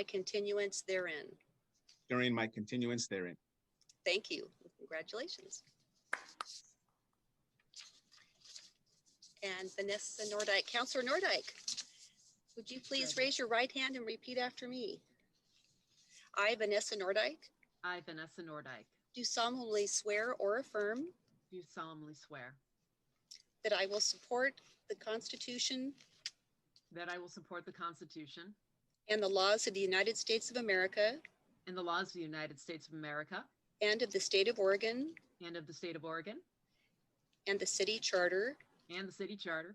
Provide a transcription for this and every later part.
my continuance therein. during my continuance therein. Thank you. Congratulations. And Vanessa Nordike, Counselor Nordike, would you please raise your right hand and repeat after me? I, Vanessa Nordike, I, Vanessa Nordike, do solemnly swear or affirm do solemnly swear that I will support the Constitution that I will support the Constitution and the laws of the United States of America and the laws of the United States of America and of the state of Oregon and of the state of Oregon and the city charter and the city charter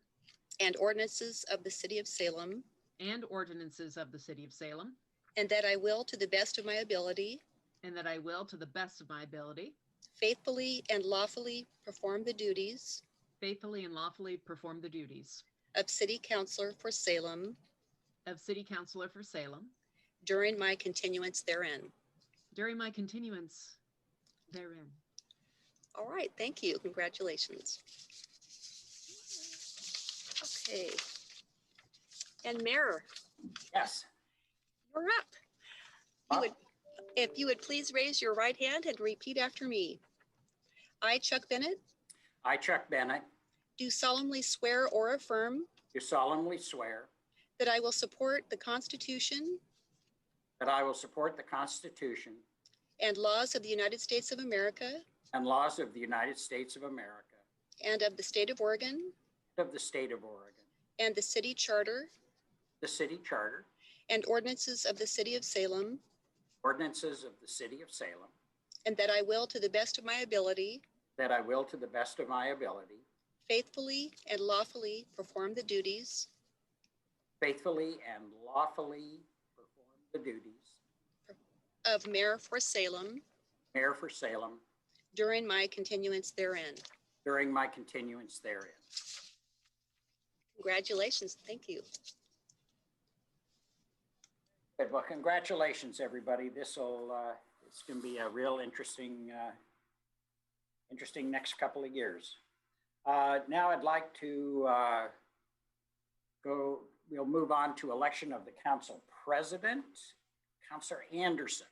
and ordinances of the city of Salem, and ordinances of the city of Salem, and that I will, to the best of my ability, and that I will, to the best of my ability, faithfully and lawfully perform the duties faithfully and lawfully perform the duties of city councillor for Salem of city councilor for Salem during my continuance therein. during my continuance therein. All right, thank you. Congratulations. Okay. And Mayor, Yes. you're up. You would, if you would please raise your right hand and repeat after me. I, Chuck Bennett, I, Chuck Bennett, do solemnly swear or affirm do solemnly swear that I will support the Constitution that I will support the Constitution and laws of the United States of America and laws of the United States of America, and of the state of Oregon of the state of Oregon, and the city charter the city charter, and ordinances of the city of Salem, ordinances of the city of Salem, and that I will, to the best of my ability, that I will, to the best of my ability, faithfully and lawfully perform the duties faithfully and lawfully perform the duties of mayor for Salem mayor for Salem during my continuance therein. during my continuance therein. Congratulations. Thank you. Good. Well, congratulations, everybody. This'll, uh, it's going to be a real interesting, uh, interesting next couple of years. Uh, now I'd like to, uh, go, we'll move on to election of the council president, Counselor Anderson.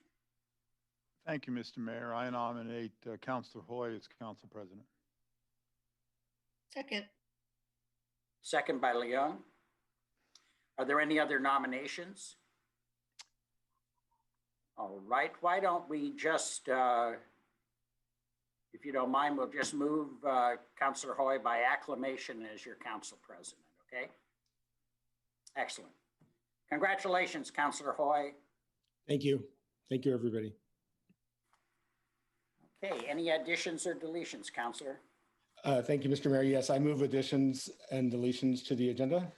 Thank you, Mr. Mayor. I nominate uh, Counselor Hoy as council president. Second, Second by Leung. Are there any other nominations? All right, why don't we just, uh, if you don't mind, we'll just move uh, Counselor Hoy by acclamation as your council president, okay? Excellent. Congratulations, Counselor Hoy. Thank you. Thank you, everybody. Okay, any additions or deletions, Counselor? Uh, Thank you, Mr. Mayor. Yes, I move additions and deletions to the agenda.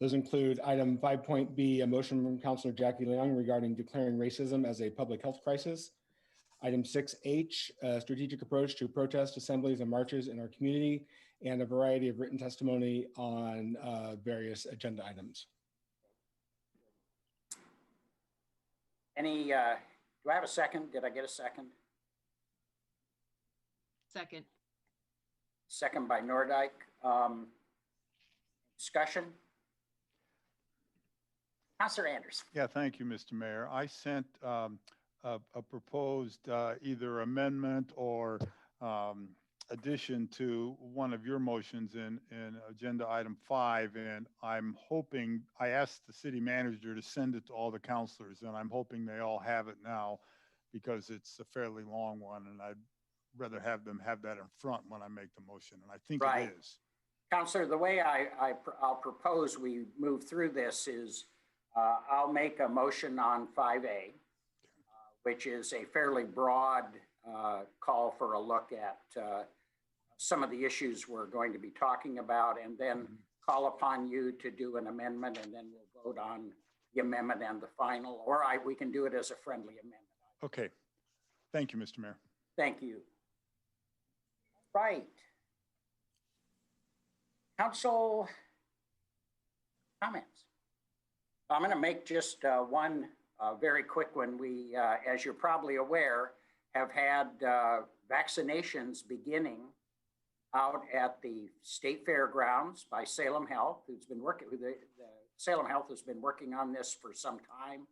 Those include item five point B, a motion from Counselor Jackie Leong regarding declaring racism as a public health crisis. Item six H, a strategic approach to protest assemblies and marches in our community, and a variety of written testimony on uh, various agenda items. Any, uh, do I have a second? Did I get a second? Second, Second by Nordike. Um, Discussion? Counselor Anderson, Yeah, thank you, Mr. Mayor. I sent um, a a proposed uh, either amendment or um, addition to one of your motions in, in Agenda Item 5, and I'm hoping, I asked the city manager to send it to all the councilors, and I'm hoping they all have it now because it's a fairly long one, and I'd rather have them have that in front when I make the motion, and I think Right. it is. Counselor, the way I, I, pr- I'll propose we move through this is uh, I'll make a motion on 5A, uh, which is a fairly broad uh, call for a look at uh, some of the issues we're going to be talking about, and then call upon you to do an amendment, and then we'll vote on the amendment and the final, or I, we can do it as a friendly amendment. Okay. Thank you, Mr. Mayor. Thank you. Right. Council comments. I'm going to make just uh, one uh, very quick one. We, uh, as you're probably aware, have had uh, vaccinations beginning out at the state fairgrounds by Salem Health, who's been working with the, the Salem Health has been working on this for some time.